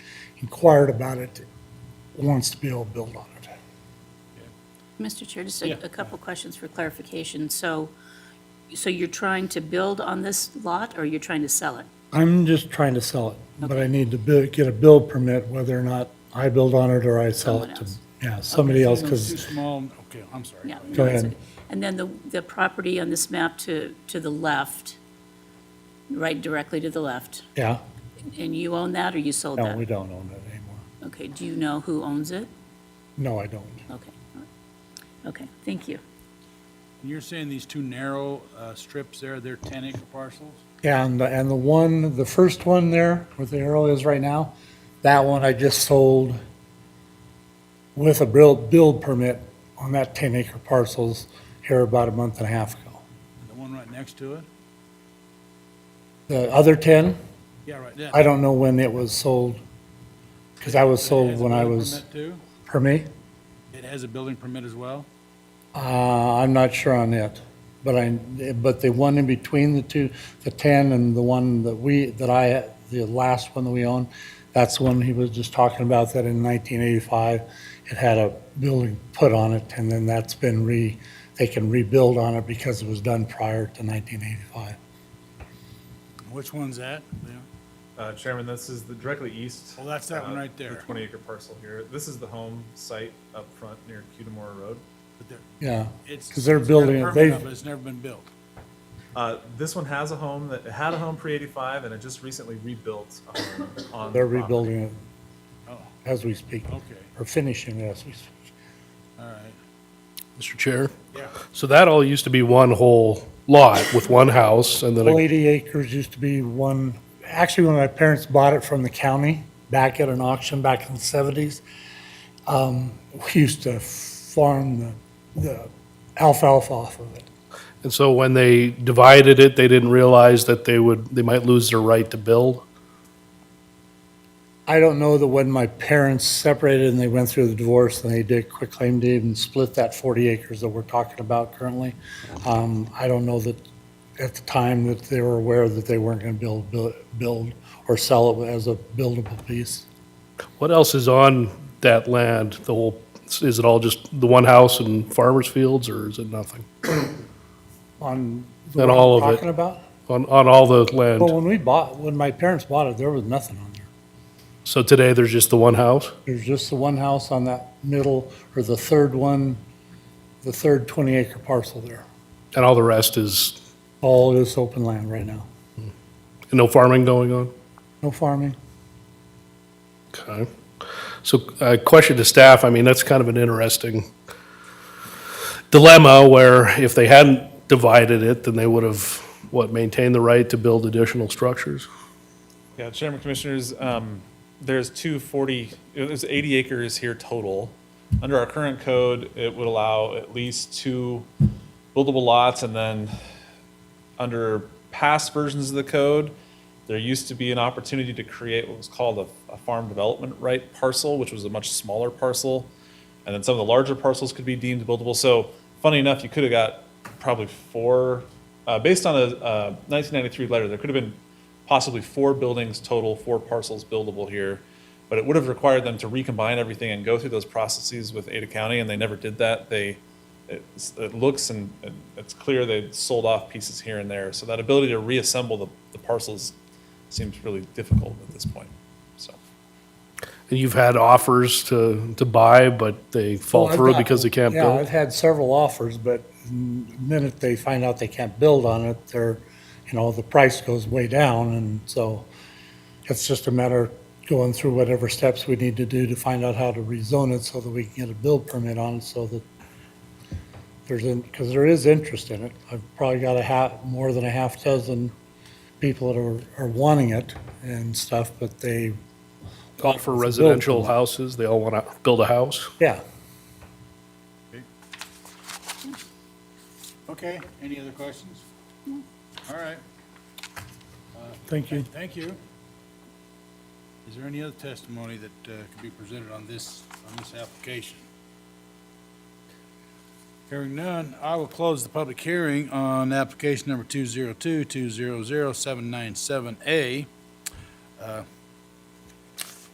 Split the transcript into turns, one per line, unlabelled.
inquired about it wants to be able to build on it.
Mr. Chair, just
Yeah.
a- a couple questions for clarification. So, so you're trying to build on this lot, or you're trying to sell it?
I'm just trying to sell it, but I need to bu- get a build permit, whether or not I build on it or I sell it
Someone
to,
else.
yeah, somebody else,
Too
because
small, okay, I'm sorry.
Yeah.
Go
no, that's
ahead.
okay. And then the, the property on this map to, to the left, right directly to the left,
yeah,
and you own that, or you sold
no, we
that?
don't own it anymore.
Okay, do you know who owns it?
No, I don't.
Okay, all right. okay, thank you.
And You're saying these two narrow uh, strips there, they're 10-acre parcels?
And, the- and the one, the first one there, where the arrow is right now, that one I just sold with a build, build permit on that 10-acre parcels here about a month and a half ago.
And The one right next to it?
The other 10,
Yeah, right there.
I don't know when it was sold, because I was sold when I was, for me,
It has a building permit as well?
uh, I'm not sure on it. But I, but the one in between the two, the 10 and the one that we, that I, the last one that we own, that's the one he was just talking about, that in 1985, it had a building put on it, and then that's been re, they can rebuild on it because it was done prior to 1985.
Which one's that? Yeah.
Uh, Chairman, this is the directly east.
Well, that's that one
uh,
right there.
The twenty acre parcel here. This is the home site up front near Cudamore Road.
But they're-
Yeah,
it's-
'Cause they're
it's got a
building it.
permit
They've-
up, but It's never been built.
Uh, this one has a home that, it had a home pre-eighty-five and it just recently rebuilt a home on. the
they're
property.
rebuilding it
Oh,
as we speak,
okay,
or finishing it as we speak.
all right.
Mr. Chair.
Yeah.
So that all used to be one whole lot with one house and then,
Well,
a-
80 acres used to be one, actually, when my parents bought it from the county, back at an auction back in the 70s, um, we used to farm the- the alfalfa off of it.
and so when they divided it, they didn't realize that they would, they might lose their right to build.
I don't know that when my parents separated and they went through the divorce and they did quitclaim deed and split that 40 acres that we're talking about currently, um, I don't know that at the time that they were aware that they weren't going to build, build- build or sell it as a buildable piece.
What else is on that land? The whole, is it all just the one house and farmer's fields or is it nothing?
On
Not all of it.
Talking about?
On, on all the
Well,
land?
when we bought, when my parents bought it, there was nothing on there.
So today there's just the one house?
There's just the one house on that middle, or the third one, the third 20-acre parcel there.
And all the rest is,
All is open land right now.
and no farming going on?
No farming.
Okay. So a question to staff, I mean, that's kind of an interesting dilemma where if they hadn't divided it, then they would have, what, maintained the right to build additional structures?
Yeah, Chairman Commissioners, um, there's two forty, there's eighty acres here total. Under our current code, it would allow at least two buildable lots, and then under past versions of the code, there used to be an opportunity to create what was called a, a farm development right parcel, which was a much smaller parcel. And then some of the larger parcels could be deemed buildable. So funny enough, you could have got probably four, uh, based on a, uh, 1993 letter, there could have been possibly four buildings total, four parcels buildable here. But it would have required them to recombine everything and go through those processes with Ada County, and they never did that. They, it's- it looks and and it's clear they sold off pieces here and there. So that ability to reassemble the, the parcels seems really difficult at this point, so.
And you've had offers to, to buy, but they fall
Well, I've
through
got-
because they can't
Yeah, I've
build?
had several offers, but the minute they find out they can't build on it, they're, you know, the price goes way down, and so it's just a matter of going through whatever steps we need to do to find out how to rezone it so that we can get a build permit on it, so that there's, because there is interest in it. I've probably got a half, more than a half dozen people that are, are wanting it and stuff, but they,
All for residential houses, they all want to build a house?
yeah.
Okay, any other questions? All right,
Thank you.
thank you. Is there any other testimony that uh, could be presented on this, on this application? Hearing none, I will close the public hearing on application number 202-200-797A. Uh,